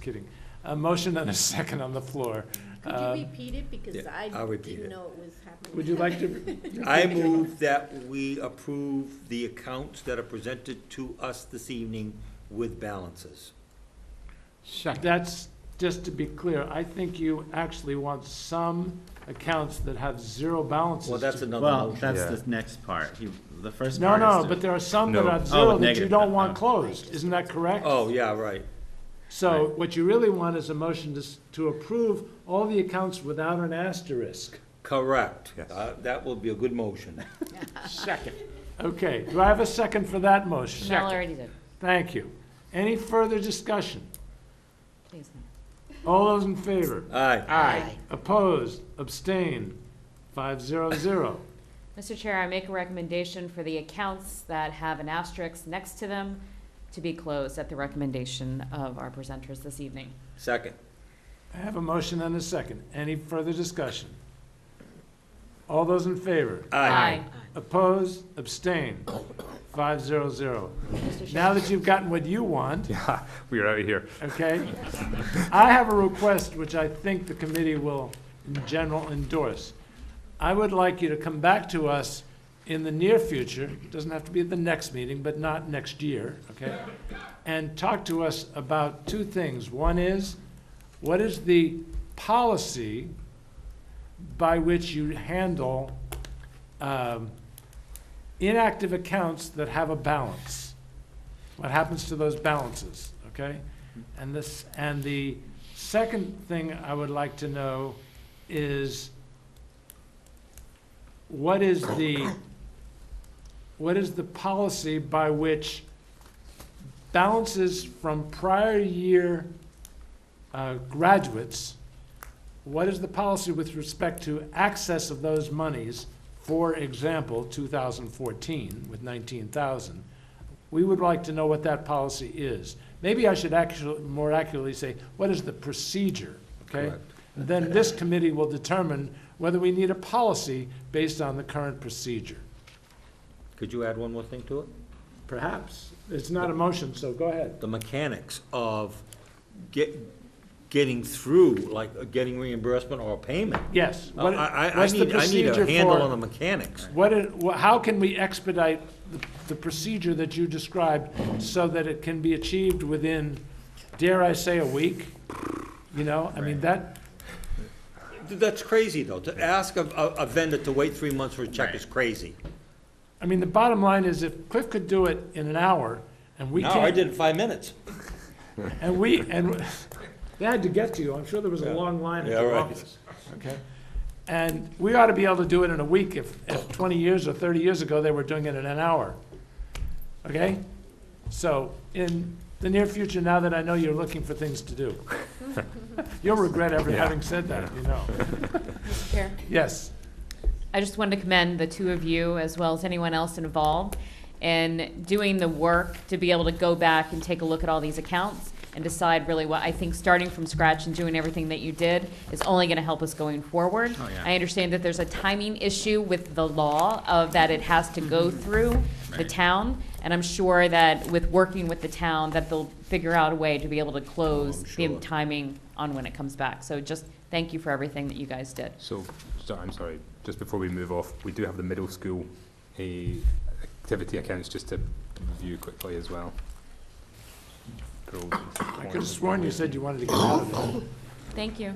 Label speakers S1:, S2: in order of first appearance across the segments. S1: kidding. A motion and a second on the floor.
S2: Could
S1: Uh,
S2: you repeat it, because
S3: Um, yeah,
S2: I
S3: I'll repeat
S2: didn't
S3: it.
S2: know it was happening.
S1: Would you like to?
S3: I move that we approve the accounts that are presented to us this evening with balances.
S1: But That's, just to be clear, I think you actually want some accounts that have zero balances.
S3: Well, that's
S1: to-
S3: another
S4: Well,
S3: motion.
S4: that's
S5: Yeah.
S4: the next part. He, the first
S1: No,
S4: part
S1: no,
S4: is to-
S1: but there are some that
S5: No.
S1: are
S4: Oh,
S1: zero that you
S4: negative,
S1: don't
S4: uh,
S1: want
S4: uh.
S1: closed, isn't that correct?
S3: Oh, yeah, right.
S1: So what you really want is a motion to, s- to approve all the accounts without an asterisk.
S3: Correct.
S5: Yes.
S3: Uh, That will be a good motion.
S1: Second. Okay, do I have a second for that motion?
S6: Mel already did.
S1: Thank you. Any further discussion?
S6: Please.
S1: All those in favor?
S3: Aye.
S6: Aye.
S1: Opposed, abstained, five zero zero.
S6: Mr. Chair, I make a recommendation for the accounts that have an asterisk next to them to be closed at the recommendation of our presenters this evening.
S3: Second.
S1: I have a motion and a second. Any further discussion? All those in favor?
S3: Aye.
S1: Opposed, abstained, five zero zero. Now that you've gotten what you want,
S5: Yeah, we are out of here.
S1: okay? I have a request which I think the committee will, in general, endorse. I would like you to come back to us in the near future, doesn't have to be at the next meeting, but not next year, okay? And talk to us about two things. One is, what is the policy by which you handle um, inactive accounts that have a balance? What happens to those balances, okay? And this, and the second thing I would like to know is what is the, what is the policy by which balances from prior year uh, graduates, what is the policy with respect to access of those monies? For example, 2014 with 19,000. We would like to know what that policy is. Maybe I should actually, more accurately say, what is the procedure, okay?
S3: Correct.
S1: Then this committee will determine whether we need a policy based on the current procedure.
S3: Could you add one more thing to it?
S1: Perhaps. It's not a motion, so go ahead.
S3: the mechanics of get, getting through, like uh, getting reimbursement or payment. Uh,
S1: Yes.
S3: Oh, I,
S1: What-
S3: I, I
S1: what's the
S3: need, I need
S1: procedure
S3: a handle
S1: for-
S3: on the mechanics.
S1: What, it- wha- how can we expedite the- the procedure that you described so that it can be achieved within, dare I say, a week? You know, I mean, that,
S3: Th- That's crazy, though. To ask a, a a vendor to wait three months for a check is crazy.
S1: I mean, the bottom line is if Cliff could do it in an hour and we
S3: No,
S1: can't.
S3: I did it in five minutes.
S1: And we, and they had to get to you, I'm sure there was a long line at
S3: Yeah,
S1: your
S3: right.
S1: office. Okay? And we ought to be able to do it in a week if, if twenty years or thirty years ago, they were doing it in an hour. Okay? So, in the near future, now that I know you're looking for things to do, you'll regret ever
S5: Yeah.
S1: having said that, you know.
S6: Mr. Chair.
S1: Yes,
S6: I just wanted to commend the two of you, as well as anyone else involved, in doing the work to be able to go back and take a look at all these accounts and decide really what, I think starting from scratch and doing everything that you did is only going to help us going forward.
S4: Oh, yeah.
S6: I understand that there's a timing issue with the law of that it has to go through the
S4: Mm-hmm. Right.
S6: town, and I'm sure that with working with the town, that they'll figure out a way to be able to
S4: Oh,
S6: close the
S3: sure.
S6: timing on when it comes back. So just thank you for everything that you guys did.
S5: So, so, I'm sorry, just before we move off, we do have the middle school eh, activity accounts just to review quickly as well.
S1: I could have sworn you said you wanted to get out of it.
S6: Thank you.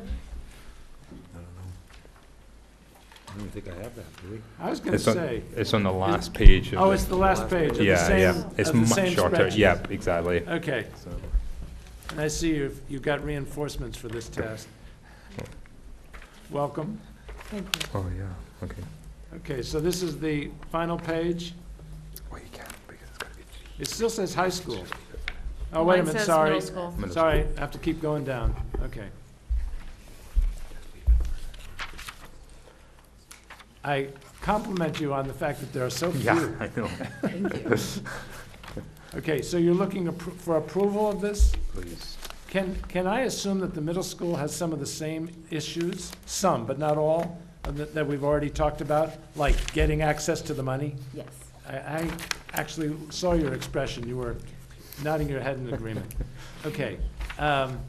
S3: I don't think I have that, do we?
S1: I was gonna
S5: It's on,
S1: say,
S5: it's on the last page of
S1: oh,
S5: the-
S1: it's the last page of the
S5: Yeah,
S1: same,
S5: yeah,
S1: of
S5: it's
S1: the
S5: much
S1: same
S5: shorter,
S1: spreadsheet.
S5: yep, exactly.
S1: Okay.
S5: So,
S1: And I see you've, you got reinforcements for this task. Welcome.
S6: Thank you.
S5: oh, yeah, okay.
S1: Okay, so this is the final page.
S5: Well, you can't, because it's gotta be three.
S1: It still says high school. Oh, wait a
S6: Mine
S1: minute,
S6: says
S1: sorry.
S6: middle school.
S5: Middle
S1: Sorry, I have to keep going down. Okay. I compliment you on the fact that there are so
S5: Yeah,
S1: few.
S5: I know,
S1: Okay, so you're looking appro- for approval of this?
S5: please.
S1: Can, can I assume that the middle school has some of the same issues, some, but not all, of that, that we've already talked about, like getting access to the money?
S6: Yes.
S1: I, I actually saw your expression, you were nodding your head in agreement. Okay, um,